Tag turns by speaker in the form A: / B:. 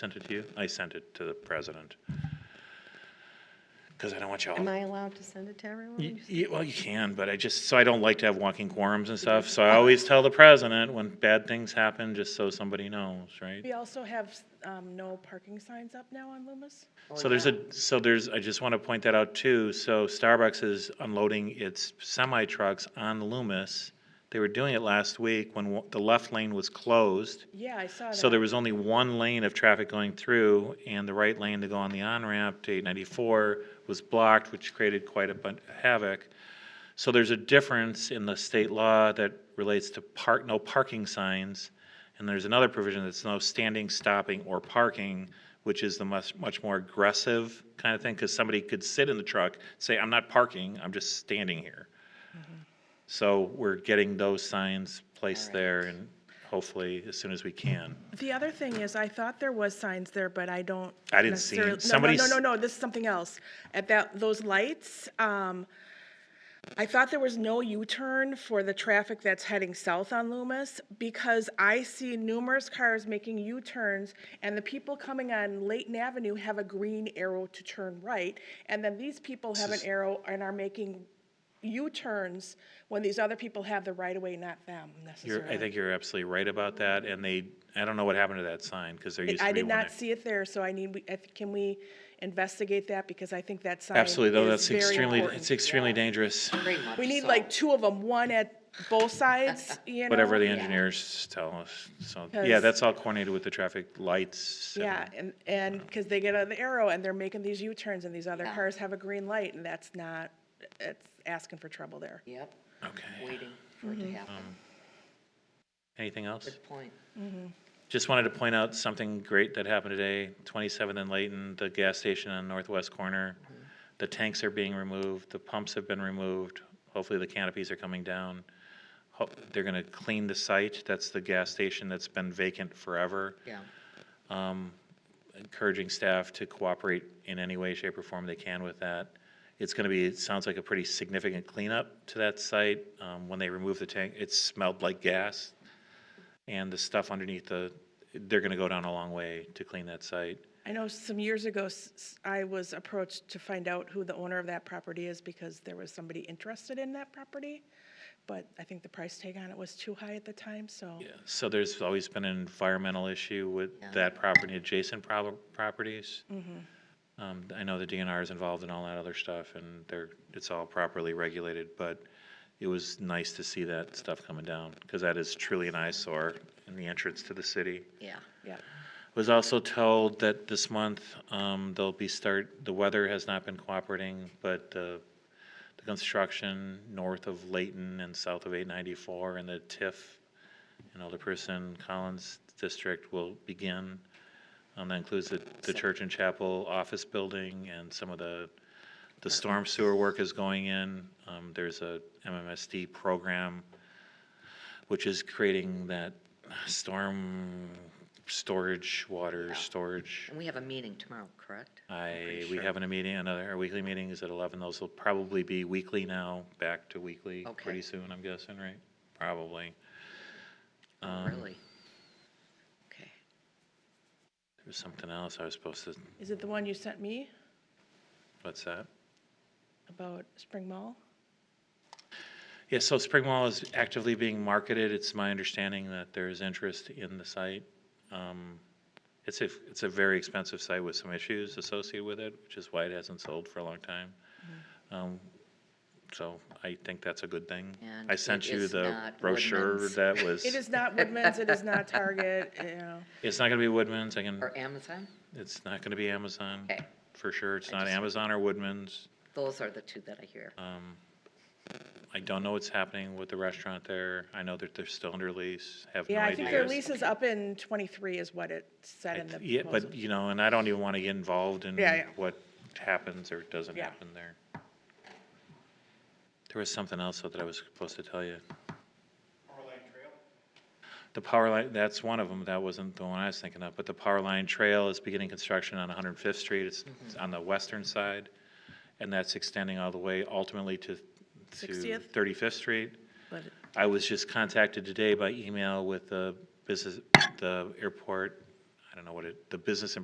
A: Sent it to you? I sent it to the president. Because I don't want you all.
B: Am I allowed to send it to everyone?
A: Y- y- Well, you can, but I just, so I don't like to have walking quorums and stuff, so I always tell the president when bad things happen, just so somebody knows, right?
C: We also have um, no parking signs up now on Loomis.
A: So there's a, so there's, I just want to point that out too. So Starbucks is unloading its semi trucks on Loomis. They were doing it last week when wa- the left lane was closed.
C: Yeah, I saw that.
A: So there was only one lane of traffic going through and the right lane to go on the on-ramp to eight ninety-four was blocked, which created quite a bun- havoc. So there's a difference in the state law that relates to park, no parking signs. And there's another provision that's no standing, stopping, or parking, which is the much, much more aggressive kind of thing, because somebody could sit in the truck, say, I'm not parking, I'm just standing here. So we're getting those signs placed there and hopefully as soon as we can.
C: The other thing is, I thought there was signs there, but I don't.
A: I didn't see 'em.
C: necessarily- no, no,
A: Somebody
C: No,
A: s-
C: no, no, this is something else. At that, those lights, um, I thought there was no U-turn for the traffic that's heading south on Loomis because I see numerous cars making U-turns and the people coming on Layton Avenue have a green arrow to turn right. And then these people have an
A: is-
C: arrow and are making U-turns when these other people have the right of way, not them necessarily.
A: You're, I think you're absolutely right about that, and they, I don't know what happened to that sign, because there used to be one.
C: I did not
A: there.
C: see it there, so I need, we- if- can we investigate that, because I think that sign
A: Absolutely, though, that's
C: is very
A: extremely,
C: important.
A: it's extremely dangerous,
C: We need like two of them, one at both sides, you know?
A: whatever the engineers tell us, so, yeah,
C: 'Cause-
A: that's all coordinated with the traffic lights. and-
C: Yeah, and, and, because they get an arrow and they're making these U-turns and these other cars have a green light, and that's not, it's asking for trouble there.
D: Yep,
A: Okay,
D: waiting for it to happen.
A: anything else?
D: Good point.
A: Just wanted to point out something great that happened today, 27th and Layton, the gas station on northwest corner. The tanks are being removed, the pumps have been removed, hopefully the canopies are coming down. Ho- They're gonna clean the site, that's the gas station that's been vacant forever.
D: Yeah,
A: Encouraging staff to cooperate in any way, shape, or form they can with that. It's gonna be, it sounds like a pretty significant cleanup to that site. Um, When they removed the tank, it smelled like gas and the stuff underneath the, they're gonna go down a long way to clean that site.
C: I know some years ago, s- s- I was approached to find out who the owner of that property is, because there was somebody interested in that property, but I think the price tag on it was too high at the time, so.
A: So there's always been an environmental issue with that property, adjacent prob- properties. Um, I know the DNR is involved in all that other stuff, and they're, it's all properly regulated, but it was nice to see that stuff coming down, because that is truly an eyesore in the entrance to the city.
D: yeah.
C: Yeah.
A: Was also told that this month, um, they'll be start, the weather has not been cooperating, but, uh, the construction north of Layton and south of eight ninety-four and the TIF and Elder Person Collins District will begin. Um, that includes the, the church and chapel office building and some of the, the storm sewer work is going in. Um, there's a MMSD program which is creating that storm storage, water storage.
D: And we have a meeting tomorrow, correct?
A: I, we having a meeting, another, our weekly meeting is at eleven, those will probably be weekly now, back to weekly
D: Okay.
A: pretty soon, I'm guessing, right? Probably.
D: Really? Okay.
A: There was something else I was supposed to,
C: Is it the one you sent me
A: what's that?
C: about Spring Mall?
A: Yeah, so Spring Mall is actively being marketed, it's my understanding that there is interest in the site. Um, It's a, it's a very expensive site with some issues associated with it, which is why it hasn't sold for a long time.
D: Mm-hmm.
A: Um, So I think that's a good thing.
D: And
A: I
D: it
A: sent you
D: is
A: the
D: not
A: brochure
D: Woodman's.
A: that was.
C: It is not Woodman's, it is not Target, you know.
A: It's not gonna be Woodman's, I can,
D: Or Amazon?
A: it's not gonna be Amazon,
D: Okay.
A: for sure, it's not
D: just-
A: Amazon or Woodman's.
D: Those are the two that I hear.
A: I don't know what's happening with the restaurant there, I know that they're still under lease, have no
C: Yeah, I
A: idea.
C: think their lease is up in twenty-three is what it said in the
A: Yeah,
C: proposal.
A: but, you know, and I don't even wanna get involved in
C: Yeah, yeah.
A: what happens or doesn't
C: Yeah.
A: happen there. There was something else though that I was supposed to tell you. The power line, that's one of them, that wasn't the one I was thinking of, but the power line trail is beginning construction on 105th Street, it's it's
C: Mm-hmm.
A: on the western side, and that's extending all the way ultimately to, to
C: 60th?
A: 35th Street.
C: But it-
A: I was just contacted today by email with the business, the airport I don't know what it, the business